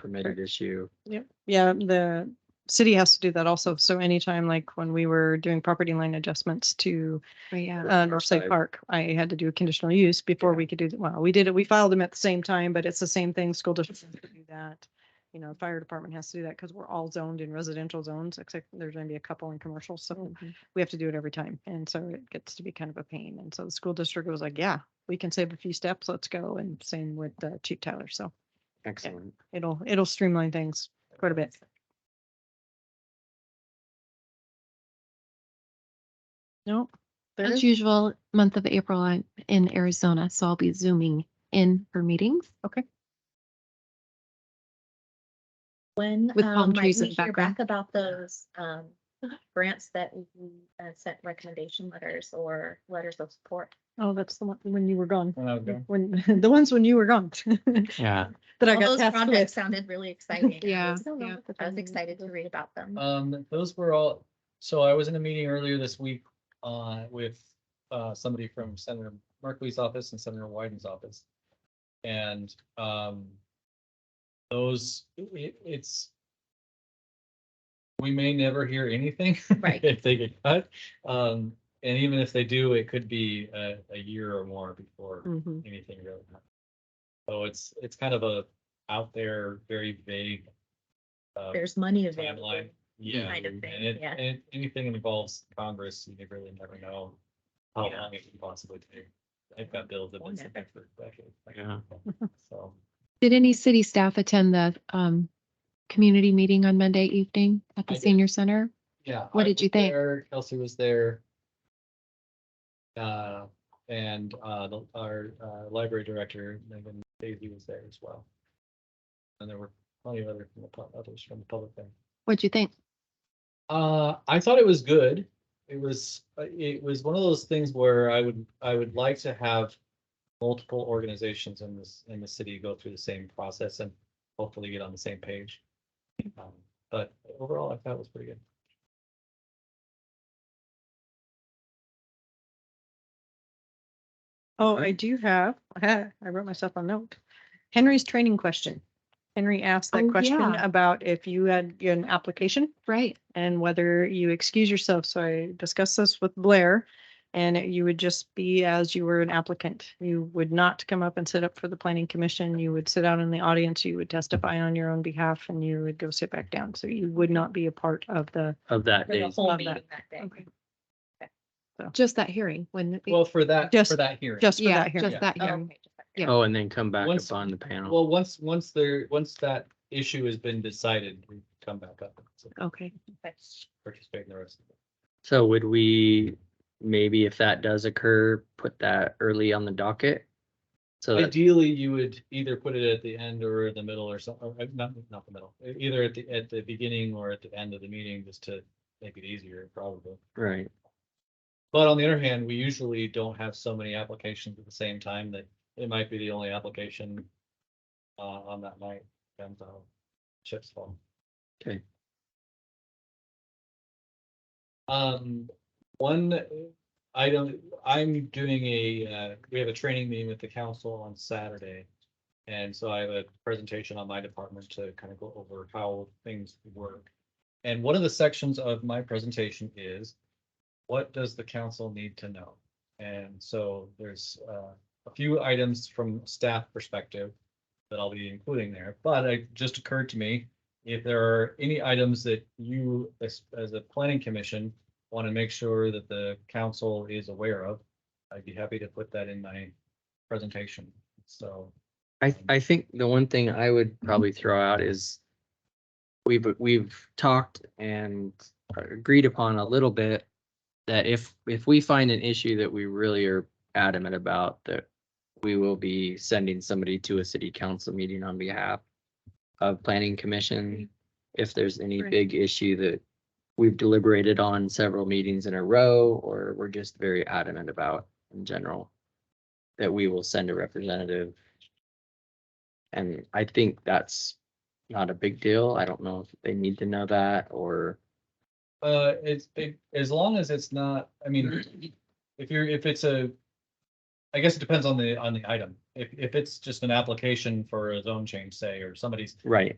permitted issue. Yeah, the city has to do that also. So anytime, like when we were doing property line adjustments to But yeah, uh, Northside Northside. Park, I had to do a conditional use before we could do, the- well, we did it, we filed them at the same time, but it's the same thing. School district has to do that. You know, fire department has to do that because we're all zoned in residential zones, except there's gonna be a couple in commercial, Mm. so we have to do it every time. And so it gets to be kind of a pain. And so the school district was like, yeah, we can save a few steps, let's go. And same with uh, Chief Tyler, so Excellent. it'll, it'll streamline things quite a bit. Nope. there as is- usual, month of April, I'm in Arizona, so I'll be zooming in for meetings. When With palm um, might trees we in the hear background. back about those um grants that we uh, sent recommendation letters or letters of support? Oh, that's the one when you were gone. When I was gone. When, the ones when you were gone. Yeah. That I All got those tasked with. projects sounded really exciting. I Yeah, was- yeah. I was excited to read about Uh, them. Um, those were all, so I was in a meeting earlier this week, uh, with, uh, somebody from Senator Merkley's office and Senator Wyden's office. And, um, those, it, it's, we may never hear anything. Right. If they get cut, um, and even if they do, it could be a, a year or more before Mhm. anything really happens. So it's, it's kind of a out there, very vague. uh, There's money timeline. available. Yeah. kind of and thing, it- yeah. And it- anything that involves Congress, you really never know how Yeah. long it can possibly take. I've got bills that have been sitting for decades. Yeah. So, Did any city staff attend the um community meeting on Monday evening at I the did. senior center? yeah. What I did you was think? there, Kelsey was there. Uh, and, uh, the- our, uh, library director, Megan Daisy was there as well. And there were plenty of other, from the pub- others from the public there. What'd you think? Uh, I thought it was good. It was, uh, it was one of those things where I would, I would like to have multiple organizations in this, in the city go through the same process and hopefully get on the same page. Um, But overall, I thought it was pretty good. Oh, I do have, I wrote myself a note. Henry's training question. Henry asked that Oh, question yeah. about if you had an application Right. and whether you excuse yourself. So I discussed this with Blair. And it- you would just be as you were an applicant. You would not come up and sit up for the planning commission. You would sit out in the audience. You would testify on your own behalf and you would go sit back down. So you would not be a part of the Of that For the day. whole Love meeting that. that day. Okay. Just that hearing when. Well, for that, Just- for that hearing. just for Yeah, that just hearing. that Oh, hearing. okay, just that Yeah. Oh, and then come back Once- up on the panel. Well, once, once there, once that issue has been decided, we come back up. and Okay. Okay. Participate in the rest. of it. So would we, maybe if that does occur, put that early on the docket? So that, Ideally, you would either put it at the end or the middle or something, not, not the middle, e- either at the, at the beginning or at the end of the meeting, just to make it easier, probably. right, But on the other hand, we usually don't have so many applications at the same time that it might be the only application uh, on that night, depends on chips fall. okay. Um, one item, I'm doing a, uh, we have a training meeting with the council on Saturday. And so I have a presentation on my department to kind of go over how things work. And one of the sections of my presentation is, what does the council need to know? And so there's, uh, a few items from staff perspective that I'll be including there, but it just occurred to me, if there are any items that you, as, as a planning commission, want to make sure that the council is aware of, I'd be happy to put that in my presentation. So, I, I think the one thing I would probably throw out is we've, we've talked and agreed upon a little bit that if, if we find an issue that we really are adamant about, that we will be sending somebody to a city council meeting on behalf of planning commission. If there's any Right. big issue that we've deliberated on several meetings in a row, or we're just very adamant about in general, that we will send a representative and I think that's not a big deal. I don't know if they need to know that or, uh, it's, it- as long as it's not, I mean, if you're, if it's a, I guess it depends on the, on the item. If, if it's just an application for a zone change, say, or somebody's right.